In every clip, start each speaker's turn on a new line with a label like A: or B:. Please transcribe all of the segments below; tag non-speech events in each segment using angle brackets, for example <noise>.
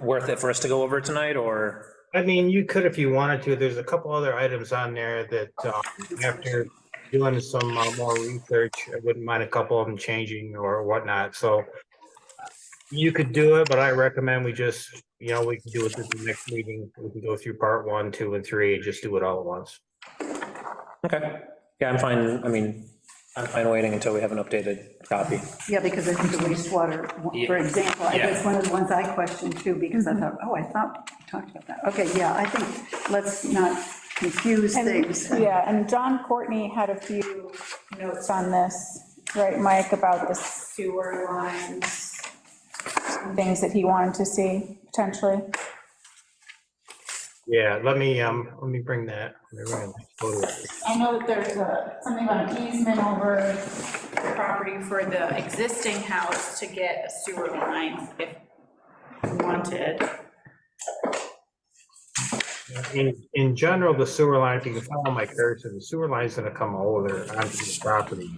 A: worth it for us to go over tonight, or?
B: I mean, you could if you wanted to. There's a couple other items on there that uh, after doing some uh, more research, I wouldn't mind a couple of them changing or whatnot, so. You could do it, but I recommend we just, you know, we can do it at the next meeting. We can go through part one, two, and three, and just do it all at once.
A: Okay, yeah, I'm fine, I mean, I'm fine waiting until we have an updated copy.
C: Yeah, because I think the wastewater, for
A: Yeah.
C: example, I
A: Yeah.
C: that's one of the ones I questioned too, because I thought, oh, I thought we talked about that. Okay, yeah, I think, let's not confuse things.
D: And- Yeah, and John Courtney had a few notes on this, right, Mike, about the sewer lines, and things that he wanted to see potentially.
B: Yeah, let me, um, let me bring that. let me bring that photo up.
D: I know that there's a, something about an easement over the property for the existing house to get a sewer line if wanted.
B: In, in general, the sewer line, if you can follow my cursor, the sewer line's gonna come over onto the property.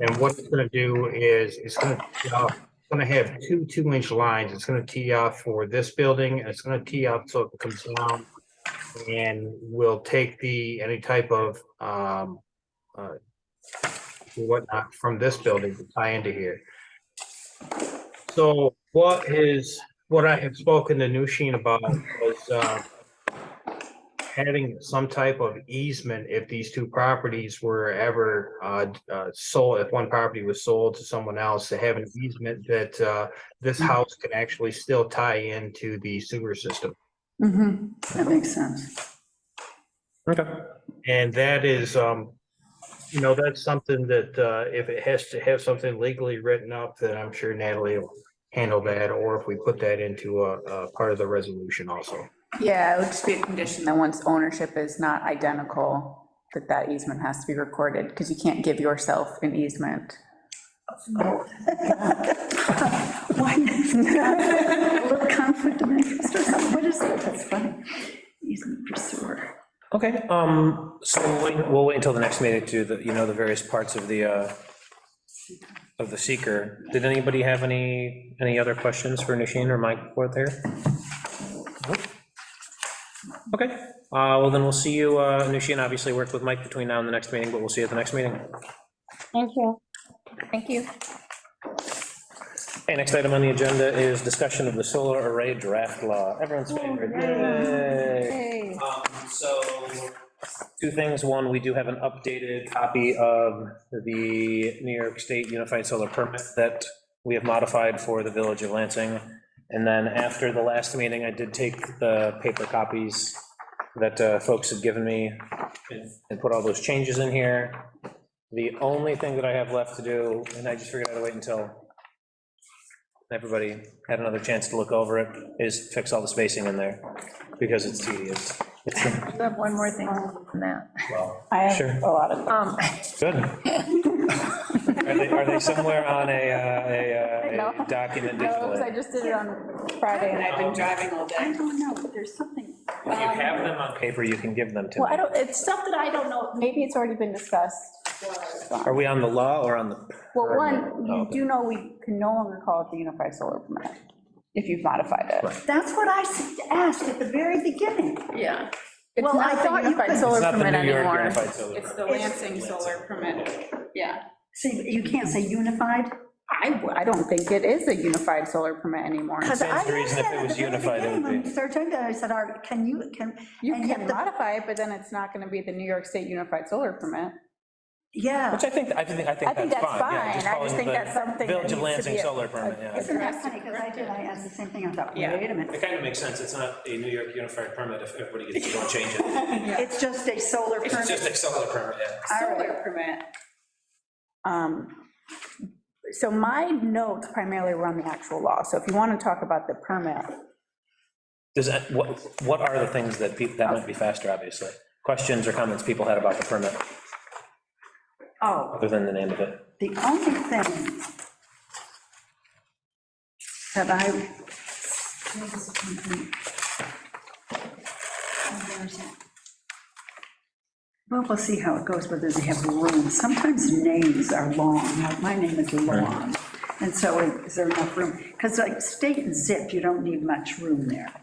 B: And what it's gonna do is, it's gonna, tee off- it's gonna have two two-inch lines. It's gonna tee off for this building, and it's gonna tee off so it comes down. And will take the, any type of, um, uh, whatnot from this building to tie into here. So what is, what I have spoken to Nushin about was, uh, having some type of easement if these two properties were ever uh, uh, sold, if one property was sold to someone else, to have an easement that uh, this house can actually still tie into the sewer system.
C: Mhm, That makes sense.
A: Okay,
B: And that is, um, you know, that's something that uh, if it has to have something legally written up, then I'm sure Natalie will handle that, or if we put that into a, a part of the resolution also.
D: Yeah, it would just be a condition that once ownership is not identical, that that easement has to be recorded, because you can't give yourself an easement. Oh, <laughs>
C: Why? A little conflict of interest or something, what is it? That's funny. Easement for sewer.
A: okay, um, so we'll wait, we'll wait until the next meeting to, do the you know, the various parts of the, uh, of the seeker. Did anybody have any, any other questions for Nushin or Mike forth here? Nope. Okay, uh, well, then we'll see you, uh, Nushin obviously worked with Mike between now and the next meeting, but we'll see you at the next meeting.
D: Thank you. Thank you.
A: Hey, next item on the agenda is discussion of the solar array draft law, everyone's favorite. Yay. Um, So, two things, one, we do have an updated copy of the New York State Unified Solar Permit that we have modified for the Village of Lansing. And then after the last meeting, I did take the paper copies that uh, folks had given me and- and put all those changes in here. The only thing that I have left to do, and I just figured I'd wait until everybody had another chance to look over it, is fix all the spacing in there, because it's tedious.
E: I do have one more thing on that.
A: Well,
D: I
A: Sure.
D: have a lot of,
E: Um,
A: Good. Are they, are they somewhere on a, uh, a, uh,
D: No.
A: a document
D: no,
A: digitally?
D: Oh, I just did it on Friday, and I've been driving all
C: I
D: day.
C: don't know, but there's something,
A: If you have them on paper, you can give them to
D: Well, I
A: me.
D: don't, it's stuff that I don't know, maybe it's already been discussed.
A: Are we on the law or on the?
D: Well,
A: permit?
D: one,
A: Oh,
D: you
A: okay.
D: do know we can no longer call it the Unified Solar Permit, if you've modified it.
C: that's what I s- asked at the very beginning.
E: yeah.
D: It's
C: Well, I
D: not the
C: thought you
D: Unified
C: could-
A: It's
D: Solar
A: not the
D: Permit
A: New York
D: anymore.
A: Unified Solar Permit.
E: the Lansing solar permit, yeah.
C: See, you can't say unified,
D: I, I don't think it is a Unified Solar Permit anymore.
C: because I
A: Stands to
C: asked
A: reason if
C: that
A: it
C: at the
A: was
C: very
A: unified, it would
C: beginning, when
A: be-
C: we started talking about it, I said, "Are- can you, can.
D: You
C: and yet
D: can
C: the-
D: modify it, but then it's not going to be the New York State Unified Solar Permit.
C: Yeah.
A: Which I think, I think, I
D: I
A: think that's fine.
D: think that's
A: yeah,
D: fine, I
A: call it
D: just think
A: the
D: that's something that
A: Village
D: needs
A: of
D: to be.
A: Lansing
D: a-
A: Solar Permit,
D: a-
A: yeah.
C: Isn't that funny, because I did, I asked the same thing, I thought, wait a minute,
A: It kind of makes sense, it's not a New York Unified Permit if everybody gets to go change
D: <laughs>
A: it.
C: it's just a solar
A: It's just
C: permit.
A: a solar permit, yeah.
D: Solar permit. Um, So my notes primarily were on the actual law, so if you want to talk about the permit,
A: Does that, what, what are the things that people, that might be faster, obviously? Questions or comments people had about the permit,
C: Oh,
A: other than the name of it?
C: the only thing that I. Well, we'll see how it goes, whether they have room. Sometimes names are long, Now, my name is long. And so is there enough room? Because like state and zip, you don't need much room there.